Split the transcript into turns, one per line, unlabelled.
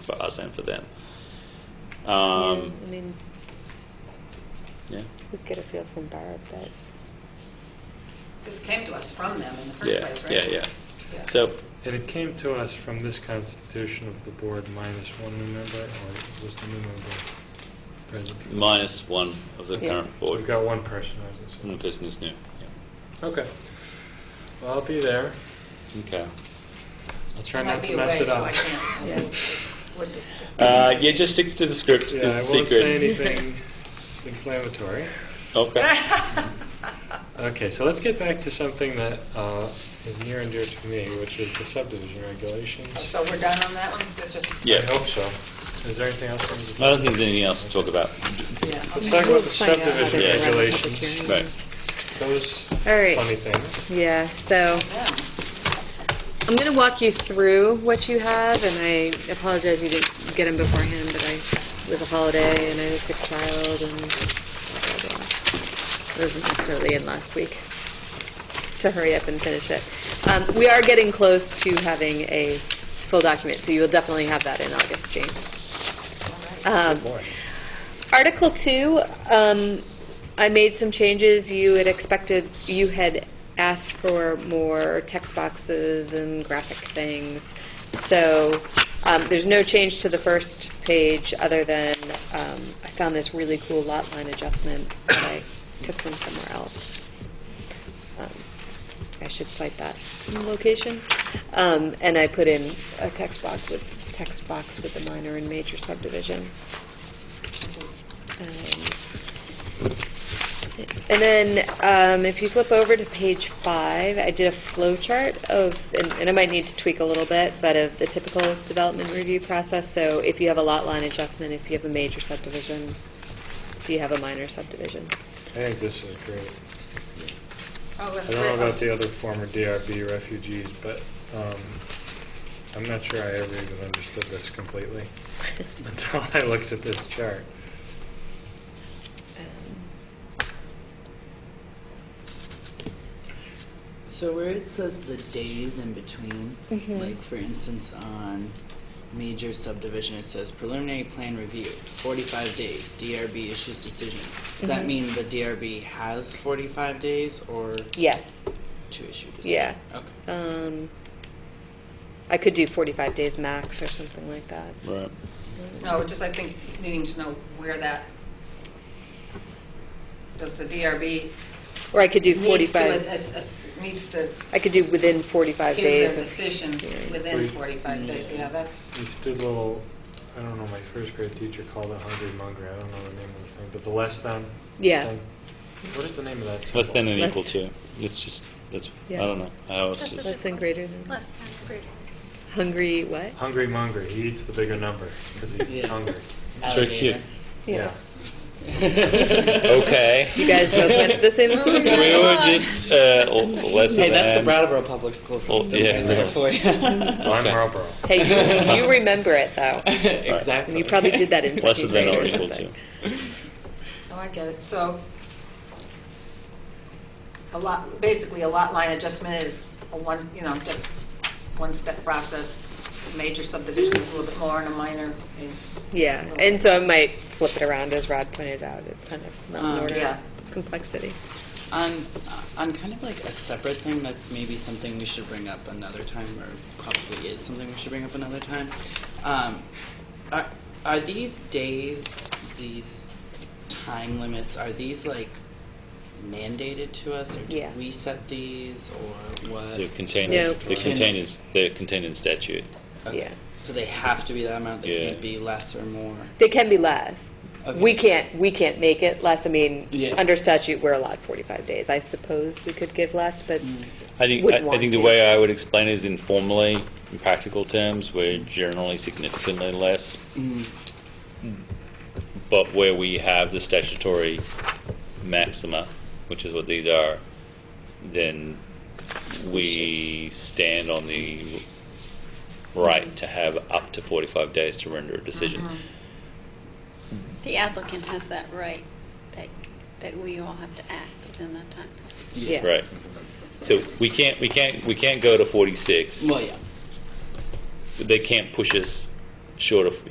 for us and for them. Um,
I mean,
yeah.
we get a feel from Barb that
This came to us from them in the first
Yeah,
place,
yeah,
right?
yeah.
Yeah.
So,
And it came to us from this constitution of the board minus one new member, or was the new member present?
minus one of the
Yeah.
current
We've
board,
got one person who hasn't
and the
served.
person is new. Yeah.
Okay. Well, I'll be there.
Okay.
I'll try
I might
not
be
to mess
away,
it
so
up.
I can't.
Yeah.
Would-
Uh, yeah, just stick to the script.
Yeah,
is the
I won't
secret.
say anything inflammatory.
Okay.
Okay, so let's get back to something that uh, is near and dear to me, which is the subdivision regulations.
So we're done on that one? That's just,
Yeah.
I hope so. Is there anything else? on the-
I don't think there's anything else to talk about.
yeah.
Let's
okay.
talk about
We'll
the
find out how they're
subdivision
gonna run the public
regulations.
hearing.
Right.
Those
All right.
funny things.
Yeah, so
Yeah. Oh,
I'm going to walk you through what you have, and I apologize you didn't get them beforehand, but I it was a holiday and I had a sick child and blah, blah, blah. I wasn't necessarily in last week to hurry up and finish it. Um, we are getting close to having a full document, so you will definitely have that in August, James. Um,
Boy.
Article two, um, I made some changes. You had expected, you had asked for more text boxes and graphic things. So, um, there's no change to the first page other than, um, I found this really cool lot line adjustment that I took from somewhere else. Um, I should cite that location. Um, and I put in a text box with, text box with the minor and major subdivision. Um, And then, um, if you flip over to page five, I did a flow chart of, and- and I might need to tweak a little bit, but of the typical development review process. So if you have a lot line adjustment, if you have a major subdivision, if you have a minor subdivision.
I think this is great.
Oh,
I
that's
don't know
great.
about
Oh,
the other former DRB refugees, but um, I'm not sure I ever even understood this completely until I looked at this chart.
So where it says the days in between,
Mhm.
like for instance on major subdivision, it says preliminary plan review, 45 days, DRB issues decision. Does that
Mm-hmm.
mean the DRB has 45 days or
Yes,
to issue decision?
yeah.
Okay.
Um, I could do 45 days max or something like that.
Right.
No, Oh, just I think needing to know where that, does the DRB
Or I could do
needs to,
45,
ad- as- as- needs to
I could do within 45
give
days.
their
of-
decision
hearing.
within
We-
45 days. Yeah, that's,
We did a little, I don't know, my first grade teacher called it hungry monger. I don't know the name of the thing, but the less than
Yeah.
thing. What is the name of that? Symbol?
Less than and
Less-
equal to. It's just, that's,
Yeah.
I don't know. I was
That's
just-
what-
Less than greater than,
Less than or greater than.
hungry what?
Hungry monger. He eats the bigger number because he's
Yeah.
hungry.
It's very cute.
Alligator.
Yeah.
okay.
You guys both went to the same school?
We were just uh, l- less
Hey,
than.
that's the Brattleboro Public School
Oh,
system
yeah,
right there
yeah.
for you.
Mm-hmm.
Well, I'm
Okay.
Marlboro.
Hey, you- you remember it though.
exactly.
And you probably did that in
Less
second
than
grade
or
or
equal to.
something.
oh, I get it. So a lot, basically, a lot line adjustment is a one, you know, just one-step process. Major subdivision is a little bit more and a minor is.
Yeah, and so I might flip it around as Rod pointed out. It's kind of not in
Um,
order of
yeah.
complexity.
On, on kind of like a separate thing that's maybe something we should bring up another time, or probably is something we should bring up another time. Um, are, are these days, these time limits, are these like mandated to us, or do
Yeah.
we set these, or what?
They're contained.
No.
They're contained in, they're contained in statute.
Okay.
Yeah.
So they have to be that amount. They
Yeah.
can't be less or more.
They can be less.
Okay.
We can't, we can't make it less. I mean,
Yeah.
under statute, we're allowed 45 days. I suppose we could give less, but
Mm.
I think,
Wouldn't
I, I
want
think the
to.
way I would explain it is informally, in practical terms, we're generally significantly less.
Mm.
But where we have the statutory maxima, which is what these are, then we stand on the right to have up to 45 days to render a decision.
Mm-hmm.
The applicant has that right, that, that we all have to act within that time.
yeah.
Right. So we can't, we can't, we can't go to 46.
Well, yeah.
They can't push us short of